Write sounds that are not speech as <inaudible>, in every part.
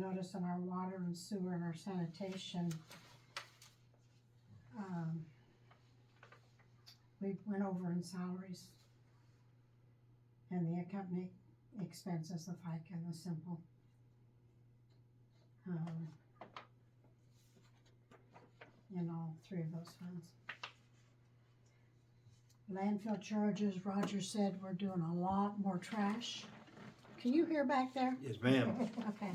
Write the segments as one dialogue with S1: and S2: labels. S1: notice on our water and sewer and our sanitation. Um, we went over in salaries. And the accompanying expenses, the FICA and the simple. Um, in all three of those funds. Landfill charges, Roger said we're doing a lot more trash. Can you hear back there?
S2: Yes, ma'am.
S1: Okay,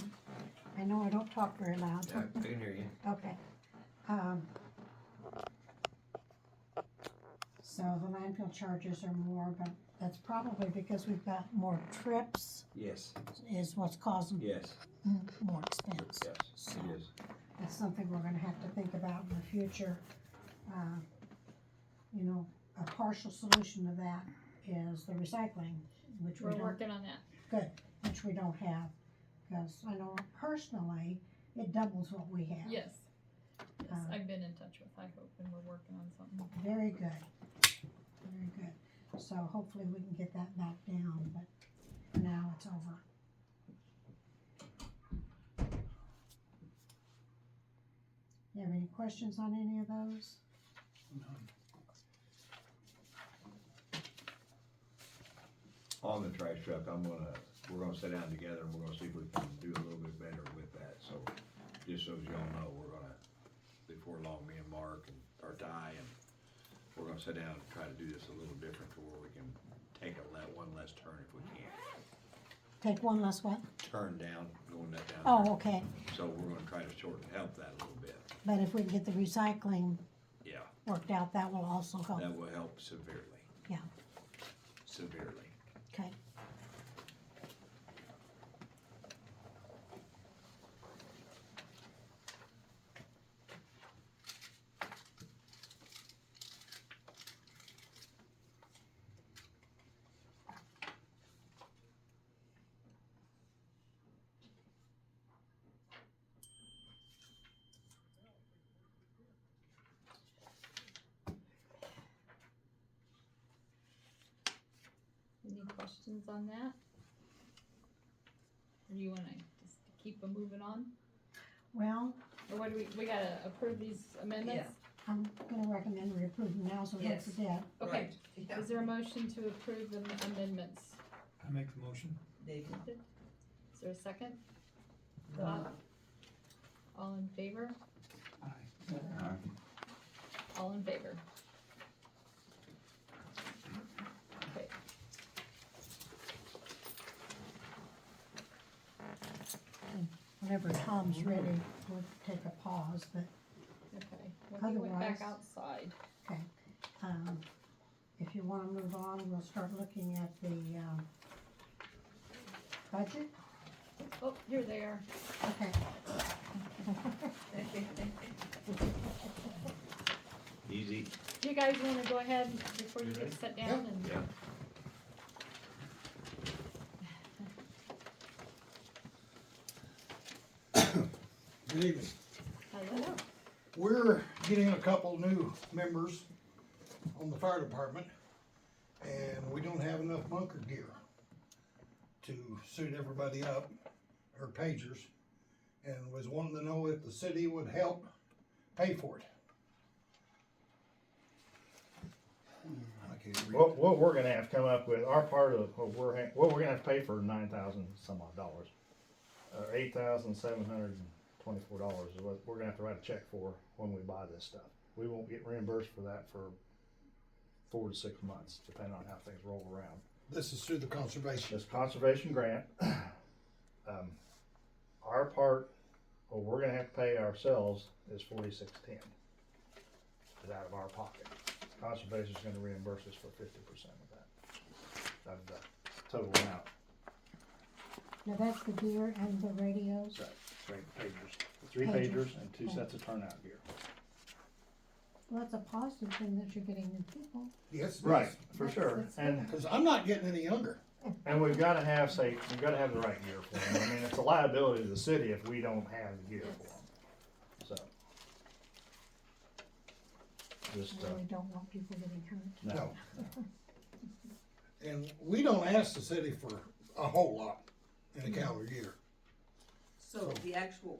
S1: I know I don't talk very loud.
S3: Yeah, I can hear you.
S1: Okay. Um, So the landfill charges are more, but that's probably because we've got more trips
S3: Yes,
S1: is what's causing
S3: yes,
S1: m- more expense.
S3: yes, it is.
S1: That's something we're gonna have to think about in the future. Uh, You know, a partial solution to that is the recycling, which we
S4: We're
S1: don't,
S4: working on that.
S1: which we don't have. Cause I know personally, it doubles what we have.
S4: Yes. Yes,
S1: Um,
S4: I've been in touch with High Hope and we're working on something.
S1: Very good, very good. So hopefully we can get that back down, but for now it's over. You have any questions on any of those?
S3: On the trash truck, I'm gonna, we're gonna sit down together and we're gonna see if we can do a little bit better with that, so. Just so as y'all know, we're gonna, before long, me and Mark and, or Ty and, we're gonna sit down and try to do this a little different to where we can take a le- one less turn if we can.
S1: Take one last one?
S3: Turn down, going that down.
S1: Oh, okay,
S3: So we're gonna try to shorten, help that a little bit,
S1: but if we can get the recycling
S3: yeah,
S1: worked out, that will also help.
S3: that will help severely,
S1: Yeah,
S3: severely.
S1: okay.
S4: Any questions on that? Or do you wanna just keep them moving on?
S1: Well,
S4: Or what do we, we gotta approve these amendments?
S1: I'm gonna recommend we approve them now, so we don't
S5: Yes.
S1: forget.
S4: Okay,
S3: Right.
S5: Yeah.
S4: is there a motion to approve the am- amendments?
S6: I make the motion.
S5: They-
S4: Is there a second? Bob? All in favor?
S6: Aye.
S3: Uh-huh.
S4: All in favor? Okay.
S1: Whenever Tom's ready, we'll take a pause, but
S4: Okay, well, he went back
S1: Otherwise-
S4: outside.
S1: Okay, um, if you wanna move on, we'll start looking at the, um, budget,
S4: Oh, here they are.
S1: okay.
S3: Easy.
S4: Do you guys wanna go ahead before you get set down and?
S3: Yeah.
S7: Good evening.
S4: Hello?
S7: We're getting a couple new members on the fire department, and we don't have enough bunker gear to suit everybody up, or pagers, and was wanting to know if the city would help pay for it. Hmm, I can't read.
S8: What, what we're gonna have to come up with, our part of what we're, ha- what we're gonna have to pay for nine thousand some odd dollars. Or eight thousand seven hundred and twenty-four dollars is what we're gonna have to write a check for when we buy this stuff. We won't get reimbursed for that for four to six months, depending on how things roll around.
S7: This is through the conservation.
S8: This conservation grant, <clears throat> um, our part, what we're gonna have to pay ourselves is forty-six ten. Is out of our pocket. Conservation's gonna reimburse us for fifty percent of that, of the total amount.
S1: Now, that's the gear and the radios,
S8: Three pagers. Three
S1: Pagers.
S8: pagers and two sets of turnout gear.
S1: well, that's a positive thing that you're getting new people.
S7: Yes,
S8: Right,
S7: yes.
S8: for sure. And,
S7: Cause I'm not getting any younger.
S8: and we've gotta have, say, we've gotta have the right gear for them. I mean, it's a liability to the city if we don't have the gear for them. So. Just,
S1: I
S8: uh,
S1: really don't want people getting hurt.
S8: no.
S7: And we don't ask the city for a whole lot in a calendar year.
S2: So the actual